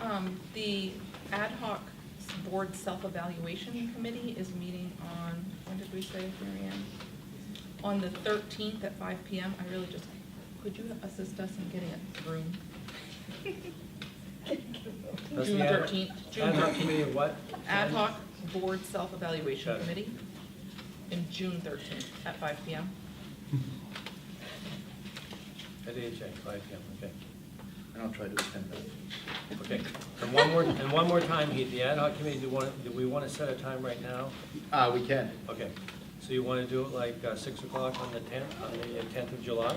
Um, the ad hoc board self-evaluation committee is meeting on, when did we say, Marianne? On the thirteenth at five PM. I really just, could you assist us in getting it through? That's June the ad- thirteenth, June Ad hoc thirteenth. committee of what? Ad hoc board self-evaluation Got it. committee in June thirteenth at five PM. At AHA, five PM, okay. And I'll try to attend that. Okay. And one more, and one more time, Heath, the ad hoc committee, do you want, do we want to set a time right now? Ah, we can. Okay. So you want to do it like uh, six o'clock on the tenth, on the tenth of July?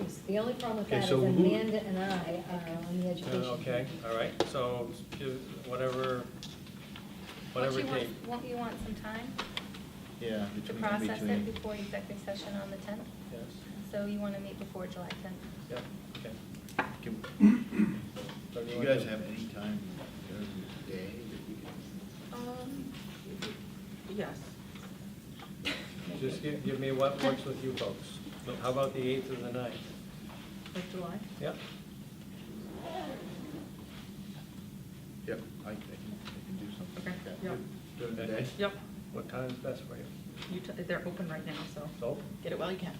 Yes, The only problem with Okay, that is so who- Amanda and I are on the Uh, education. Okay, all right, so do whatever, Don't whatever you want- date. Won't you want some time Yeah. to between- process between- it before executive session on the 10th? Yes, So you want to meet before July 10th? yeah, okay. Can- So Do you want guys to- have any time during the day that we can? Um, yes. Just give, give me what works with you folks. How about the eighth or the ninth? Of July? Yeah, Yep, I I can, I can do something Okay, like that. yeah. During the day? Yep, what time's best for you? you, t- they're open right now, so So, what get it while you can.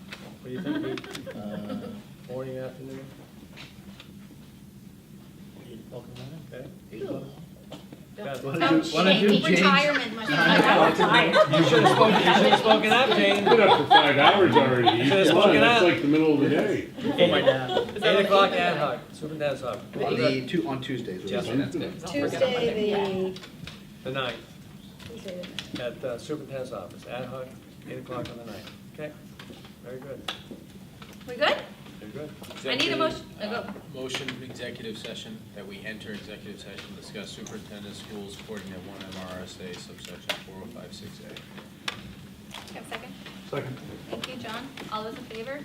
do you think, Heath? Uh, morning, afternoon? Okay. eight o'clock? Got it. Why don't you- why don't you, Shame, James? retirement, my Time. You should have spoken, you should have spoken up, You've Jane. been up for five hours already. Should've Come on, spoken That's up. like the middle of the day. Oh Eight o'clock ad hoc, superintendent's hoc, On the, two, on Tuesdays. we're Yeah. doing that. Tuesday, the ninth, the, Tuesday, the- at uh, superintendent's office, ad hoc, eight o'clock on the ninth. Okay, very good, We good? very good. I need a motion, uh, go. Motion executive session, that we enter executive session, to discuss superintendent schools according to one MRSA subsection four oh five six A. Have a second? Second. Thank you, John. All those in favor?